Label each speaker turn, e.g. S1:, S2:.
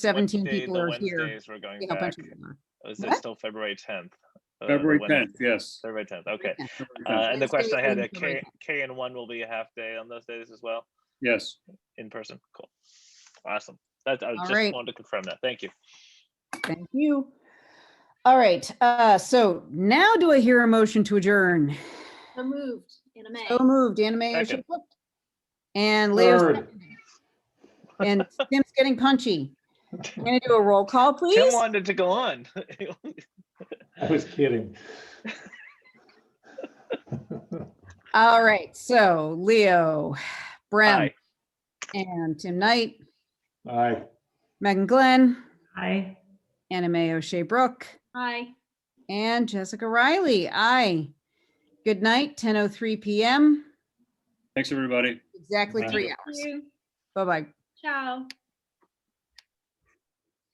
S1: seventeen
S2: Wednesday,
S1: people
S2: the
S1: are here.
S2: Wednesdays We're going
S1: see how
S2: back.
S1: bunch of them are.
S2: Is it
S1: What?
S2: still February tenth? Uh,
S3: February tenth, yes.
S2: February tenth, okay.
S1: Yeah.
S3: February
S2: Uh,
S3: 10th,
S2: and the
S1: Wednesday
S2: question I had,
S1: and
S2: uh,
S1: February
S2: K, K and one will be a half day on those days as well,
S3: Yes,
S2: in person, cool. Awesome, that, I
S1: All right.
S2: just wanted to confirm that, thank you.
S1: Thank you. All right, uh, so now do I hear a motion to adjourn?
S4: So moved, Anna May.
S1: So moved, Anna Mae
S2: Second.
S1: Bishop. And Leo,
S3: Third.
S1: seconded. and Tim's getting punchy. I'm gonna do a roll call,
S2: Tim
S1: please.
S2: wanted to go on.
S5: I was kidding.
S1: All right, so Leo, Brem,
S2: Aye.
S1: and Tim Knight,
S5: Aye.
S1: Megan Glenn,
S6: Aye.
S1: Anna Mae O'Shea Brooke,
S4: Hi.
S1: and Jessica Riley. Aye. Good night, 10:03 PM,
S3: thanks, everybody.
S1: exactly
S5: Aye.
S1: three
S4: Thank
S1: hours.
S4: you.
S1: Bye-bye.
S4: Ciao.